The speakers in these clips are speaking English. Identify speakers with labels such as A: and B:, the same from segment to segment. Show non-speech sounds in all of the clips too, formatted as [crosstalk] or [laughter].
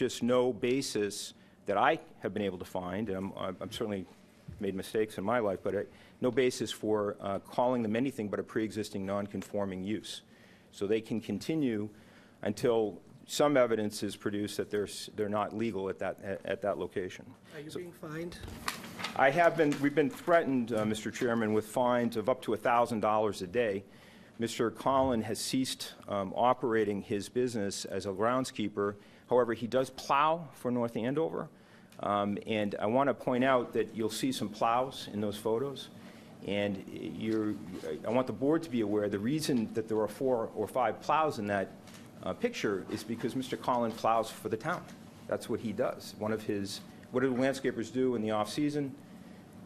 A: just no basis that I have been able to find, and I'm- I'm I'm certainly made mistakes in my life, but I- no basis for uh, calling them anything but a pre-existing non-conforming use. So they can continue until some evidence is produced that they're s- they're not legal at that at- at that location.
B: Are you being fined?
A: I have been, we've been threatened, uh, Mr. Chairman, with fines of up to $1,000 a day. Mr. Collin has ceased um, operating his business as a groundskeeper. However, he does plow for North Andover. Um, And I want to point out that you'll see some plows in those photos. And you're, I want the board to be aware, the reason that there are four or five plows in that uh, picture is because Mr. Collin plows for the town. That's what he does. One of his, what do landscapers do in the off-season?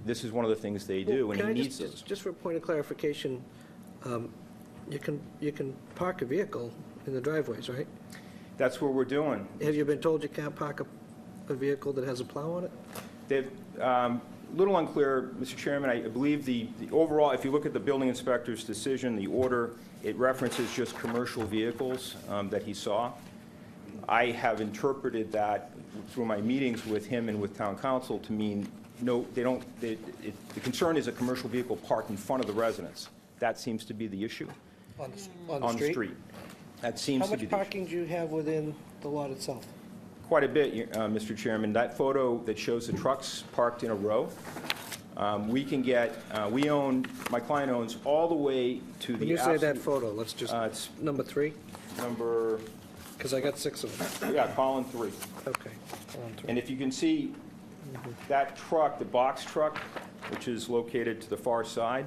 A: This is one of the things they do, and
B: Can
A: he
B: I
A: needs
B: just-
A: those.
B: just, just for a point of clarification, um, you can, you can park a vehicle in the driveways, right?
A: That's what we're doing.
B: Have you been told you can't park a, a vehicle that has a plow on it?
A: They've, um, little unclear, Mr. Chairman, I believe the, the overall, if you look at the building inspector's decision, the order, it references just commercial vehicles um, that he saw. I have interpreted that through my meetings with him and with town council to mean, no, they don't, they- it- the concern is a commercial vehicle parked in front of the residence. That seems to be the issue.
B: On the, s- on
A: on the street. That seems
B: How
A: to be
B: much
A: the issue.
B: parking do you have within the lot itself?
A: Quite a bit, uh, Mr. Chairman. That photo that shows the trucks parked in a row, um, we can get, uh, we own, my client owns all the way to
B: When
A: the
B: you say that
A: absolute
B: photo, let's just,
A: Uh, it's-
B: number three,
A: number,
B: because I got six of them.
A: yeah, column three.
B: Okay. on three.
A: And if you can see, that truck, the box truck, which is located to the far side,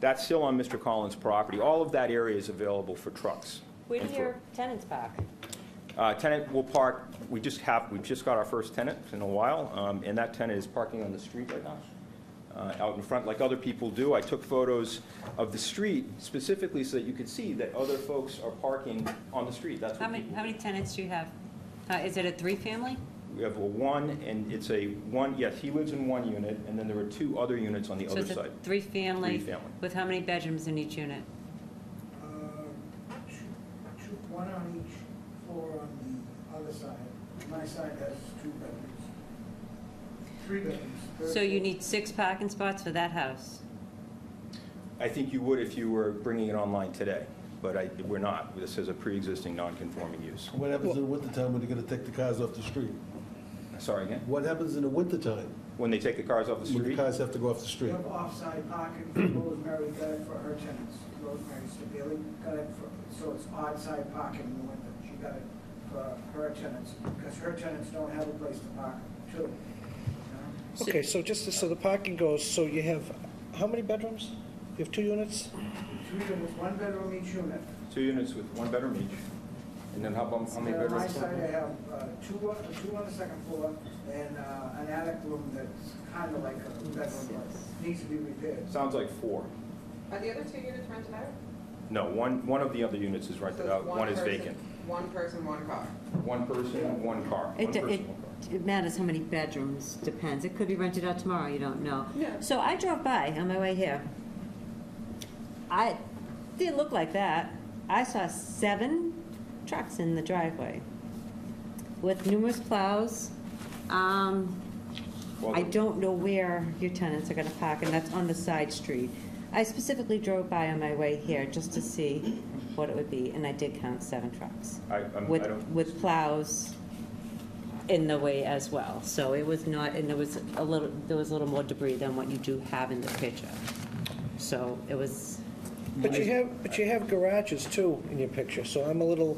A: that's still on Mr. Collins' property. All of that area is available for trucks.
C: Where do
A: and for-
C: your tenants park?
A: Uh, Tenant will park, we just have, we've just got our first tenant in a while, um, and that tenant is parking on the street right now, uh, out in front, like other people do. I took photos of the street specifically so that you could see that other folks are parking on the street. That's
C: How
A: what
C: many,
A: people,
C: how many tenants do you have? Uh, Is it a three-family?
A: we have a one, and it's a one, yes, he lives in one unit, and then there are two other units on the other
C: So
A: side.
C: it's a three-family?
A: Three-family.
C: With how many bedrooms in each unit?
D: Uh, two- two- One on each floor on the other side. My side has two bedrooms. Three bedrooms. third
C: So you
D: floor.
C: need six parking spots for that house?
A: I think you would if you were bringing it online today, but I, we're not. This is a pre-existing non-conforming use.
E: What happens in the wintertime when they're gonna take the cars off the street?
A: Sorry, again?
E: What happens in the wintertime
A: When they take the cars off the
E: when the
A: street?
E: cars have to go off the
D: We
E: street?
D: have off-side parking for Rosemary got it for her tenants. Rosemary Stabile got it for, so it's odd-side parking in the winter. She got it for her tenants, because her tenants don't have a place to park, too. you know?
B: Okay, so just, so the parking goes, so you have, how many bedrooms? You have two units?
D: Two units, one bedroom each unit.
A: Two units with one bedroom each. And then how about, how many
D: Yeah,
A: bedrooms?
D: On my side, I have uh, two, on- two on the second floor and uh, an attic room that's kind of like a bedroom, but needs to be repaired.
A: Sounds like four.
F: Are the other two units rented out?
A: No, one, one of the other units is
F: So
A: rented
F: it's
A: out, one is
F: person-
A: vacant.
F: One person, one car.
A: One person, one car. One
C: It,
A: person,
C: it,
A: one car.
C: it matters how many bedrooms, depends. It could be rented out tomorrow, you don't know.
F: Yeah.
C: So I drove by on my way here. I, didn't look like that. I saw seven trucks in the driveway with numerous plows. Um,
A: Well,
C: I don't know where your tenants are gonna park, and that's on the side street. I specifically drove by on my way here just to see what it would be, and I did count seven trucks
A: I, I'm- I
C: with,
A: don't,
C: with plows in the way as well. So it was not, and there was a little, there was a little more debris than what you do have in the picture. So it was,
B: But you have, but you have garages too in your picture, so I'm a little,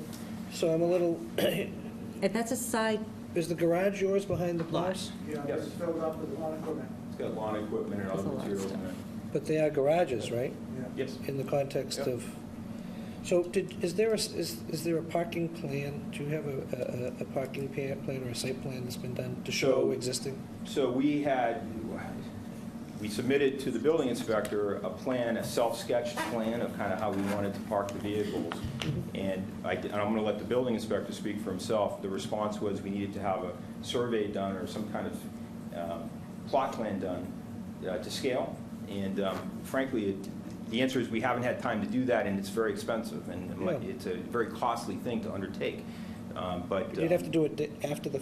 B: so I'm a little, [clears throat]
C: and that's a side,
B: is the garage yours behind the plows?
D: You know,
A: Yes.
D: it's filled up with lawn equipment.
A: it's got lawn equipment and
C: There's a
A: other
C: lot of
A: materials in
C: stuff.
A: it.
B: But they are garages, right?
D: Yeah.
A: Yes.
B: In the context
A: Yep.
B: of, so did, is there a s is, is there a parking plan? Do you have a, a, a parking pa- plan or a site plan that's been done to show
A: So-
B: existing?
A: So we had, we submitted to the building inspector a plan, a self-sketched plan of kind of how we wanted to park the vehicles. And I, and I'm going to let the building inspector speak for himself. The response was we needed to have a survey done or some kind of um, plot plan done uh, to scale. And um, frankly, it- the answer is we haven't had time to do that, and it's very expensive, and it might-
B: Yeah.
A: it's a very costly thing to undertake. Um, But.
B: You'd have
A: um,
B: to do it di- after the